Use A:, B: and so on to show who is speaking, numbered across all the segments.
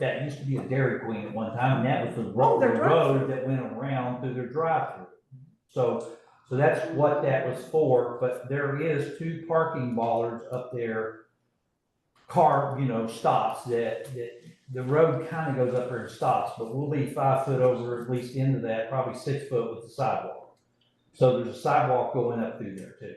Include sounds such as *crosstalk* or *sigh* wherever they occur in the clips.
A: that used to be a Dairy Queen at one time, and that was the
B: Oh,
A: road,
B: their
A: the road that went around through their drive-through. So, so that's what that was for, but there is two parking bollards up there, car, you know, stops that, that the road kind of goes up there and stops, but we'll leave five foot over at least into that, probably six foot with the sidewalk. So there's a sidewalk going up through there too.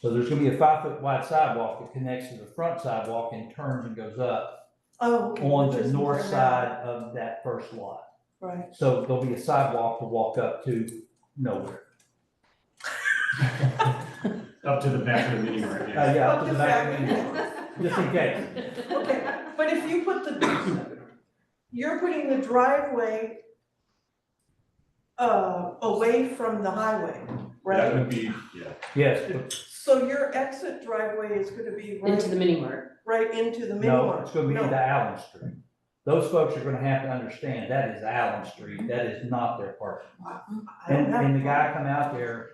A: So there's gonna be a five foot wide sidewalk that connects to the front sidewalk and turns and goes up
B: Oh. okay,
A: on
B: which
A: the
B: is
A: north
B: there now.
A: side of that first lot.
B: Right.
A: So there'll be a sidewalk to walk up to nowhere.
C: Up to the back of the meeting right
A: Uh,
C: now.
A: yeah,
B: Up
A: up to the back of the
B: Oh, back.
A: door, just in case.
B: Okay, but if you put the, you're putting the driveway uh, away from the highway,
C: That
B: right?
C: would be, yeah,
A: Yes, but
B: So your exit driveway is gonna be
D: Into the
B: right,
D: mini mart.
B: right into the mini
A: no,
B: mart?
A: it's gonna be into Allen Street. Those folks are gonna have to understand that is Allen Street, that is not their parking.
B: I don't
A: And,
B: have-
A: and the guy come out there,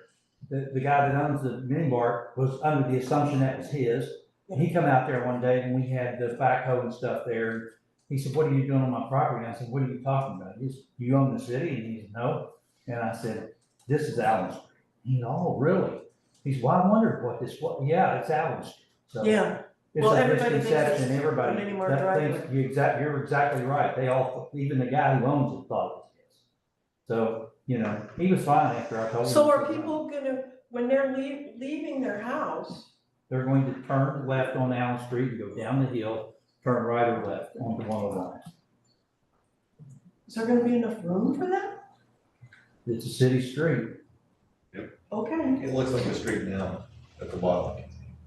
A: the, the guy that owns the mini bar was under the assumption that was his. And he come out there one day and we had the backhoe and stuff there. He said, what are you doing on my property? And I said, what are you talking about? He said, you own the city? And he said, no. And I said, this is Allen Street. He said, oh, really? He said, well, I wondered what this, was. yeah, it's Allen Street. So
B: Yeah,
A: it's
B: Well,
A: a
B: everybody thinks
A: misconception,
B: it's
A: everybody,
B: a mini mart
A: that
B: driveway.
A: thinks, you're exactly, you're exactly right, they all, even the guy who owns it thought it was his. So, you know, he was fine after I told him.
B: so
A: he
B: are
A: was fine.
B: people gonna, when they're lea- leaving their house,
A: They're going to turn left on Allen Street and go down the hill, turn right or left onto one oh one.
B: is there gonna be enough room for that?
A: It's a city street,
B: Okay,
E: It looks like a street now at the bottom.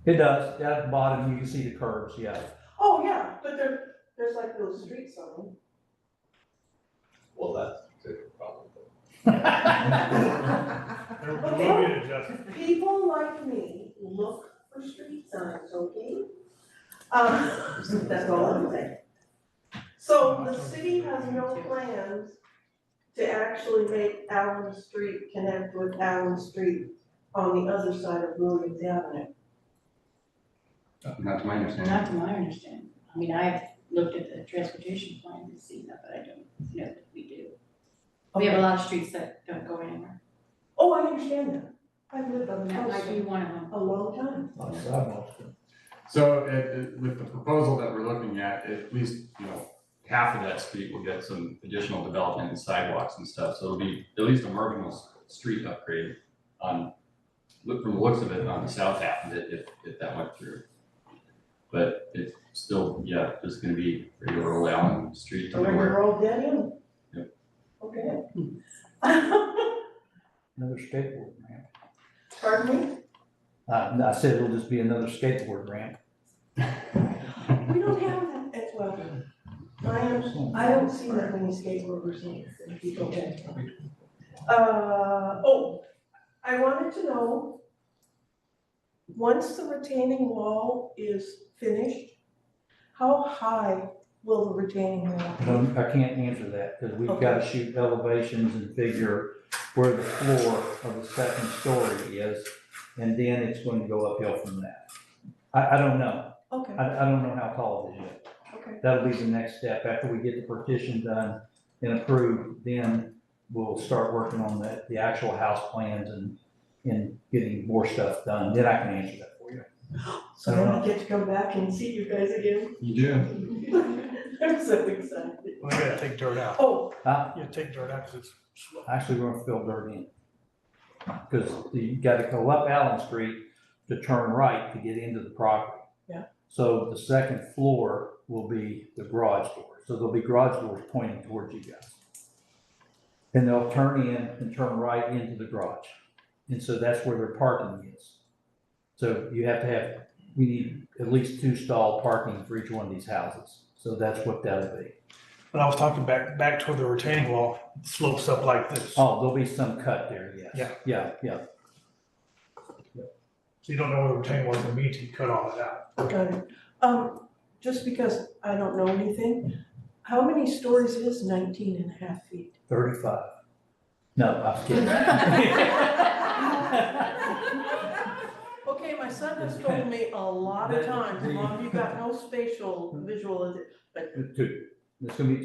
A: it does, down at the bottom, you can see the curves, yeah.
B: oh, yeah, but there, there's like those street signs.
E: Well, that's the problem.
F: There there will be an adjustment.
B: People like me look for street signs, okay? Um, *laughs* that's all I'm saying. So the city has no plans to actually make Allen Street connect with Allen Street on the other side of Williams Avenue.
G: Not to my understanding.
D: Not to my understanding. I mean, I've looked at the transportation plan and seen that, but I don't know that we do. We have a lot of streets that don't go anywhere.
B: Oh, I understand that. I've lived on the
D: That
B: Allen
D: might be
B: Street
D: one of them.
B: a long time.
A: Like sidewalks.
C: so it, it- with the proposal that we're looking at, at least, you know, half of that street will get some additional development and sidewalks and stuff, so it'll be at least a marginal s- street upgrade on, look, from the looks of it, on the south half of it, if, if that went through. But it's still, yeah, just gonna be regular old Allen Street
B: Where
C: everywhere.
B: you're all dead end.
C: Yep.
B: Okay.
A: Another skateboard ramp.
B: Pardon
A: Uh, I said it'll just be another skateboard ramp.
B: me? We don't have that at well. I am I don't see that many skateboarders here, if you go back. Uh, oh, I wanted to know, once the retaining wall is finished, how high will the retaining wall
A: I
B: be?
A: don't- I can't answer that, because we've
B: Okay.
A: got to shoot elevations and figure where the floor of the second story is, and then it's going to go uphill from that. I, I don't know,
B: Okay,
A: I, I don't know how tall it is yet.
B: okay,
A: That'll be the next step, after we get the partition done and approved, then we'll start working on the, the actual house plans and, and getting more stuff done, then I can answer that for you.
B: so then I get to come back and see you guys again. *laughs*
C: You do.
B: I'm so excited.
F: Well, you gotta take dirt out.
B: Oh,
A: Huh?
F: You gotta take dirt out because it's slow.
A: actually we're gonna fill dirt in. Cause you gotta go up Allen Street to turn right to get into the property.
B: Yeah.
A: So the second floor will be the garage door, so there'll be garage doors pointing towards you guys. And they'll turn in and turn right into the garage, and so that's where their parking is. So you have to have, we need at least two stall parking for each one of these houses, so that's what that'll be.
F: But I was talking back, back toward the retaining wall, slopes up like this. So
A: Oh, there'll be some cut there, yes.
F: Yeah.
A: Yeah, yeah.
F: you don't know where the retaining wall is gonna be until you cut all that out.
B: got it. Um, just because I don't know anything, how many stories is 19 and a half feet?
A: Thirty-five. No, I'm kidding.
B: *laughs* Okay, my son has told me a lot of times, mom, you got no spatial visual,
A: Two. It's gonna be